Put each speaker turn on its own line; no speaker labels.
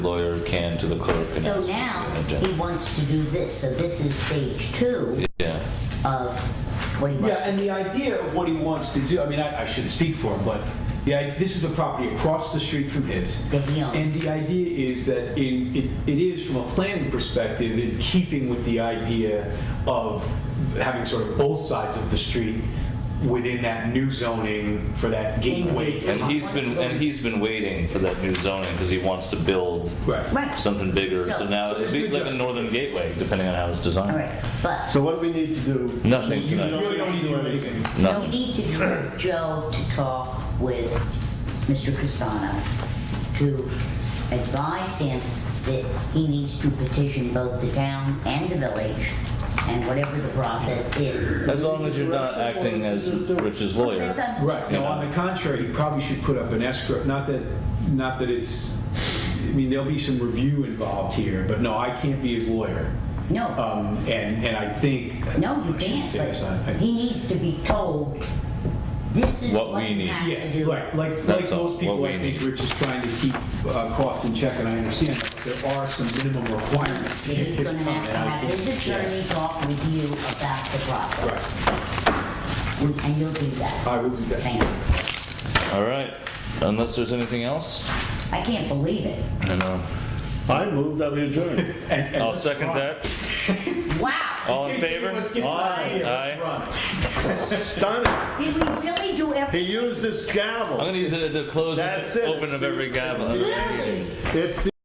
lawyer can to the clerk. and
So
ask for
now,
an
he
agenda.
wants to do this, so this is stage two
Yeah,
of what he
Yeah,
wants.
and the idea of what he wants to do, I mean, I, I shouldn't speak for him, but yeah, this is a property across the street from his.
That he owns.
And the idea is that in, it, it is, from a planning perspective, in keeping with the idea of having sort of both sides of the street within that new zoning for that gateway.
and he's been, and he's been waiting for that new zoning because he wants to build
Right.
Right,
something bigger.
So-
So now,
So there's
it'd be
good
like a
justification.
northern gateway, depending on how it's
all
designed.
right, but
So what do we need to do?
Nothing
You
tonight,
Really don't need to do anything.
you'll
nothing.
need to get Joe to talk with Mr. Casano to advise him that he needs to petition both the town and the village, and whatever the process is.
As long as you're not acting as Rich's lawyer.
That's what I'm
Right.
saying.
Now, on the contrary, he probably should put up an escrow. Not that, not that it's. I mean, there'll be some review involved here, but no, I can't be his lawyer.
No,
Um, and and I think.
no, you
I shouldn't
can't,
say this, I-
but
I-
he needs to be told, this is
What we
what you
need.
have to
Yeah,
do.
right. Like like
That's all-
most people,
what we
I think
need.
Rich is trying to keep uh, costs in check, and I understand that but there are some minimum requirements
that
here at
he's
this
gonna
time.
have to
and I
have his
think- yeah.
attorney talk with you about the process,
Right.
and you'll do that.
I will do that.
Thank you.
All right, unless there's anything else?
I can't believe it.
I know.
I move that we adjourn.
I'll second that.
Wow,
All in
case
favor?
anyone gets an idea,
Aye.
let's
Aye.
run.
Stunning.
did we really do
He
everything?
used this
I'm
gavel.
gonna use it to close and
That's it.
open of every gavel.
It's the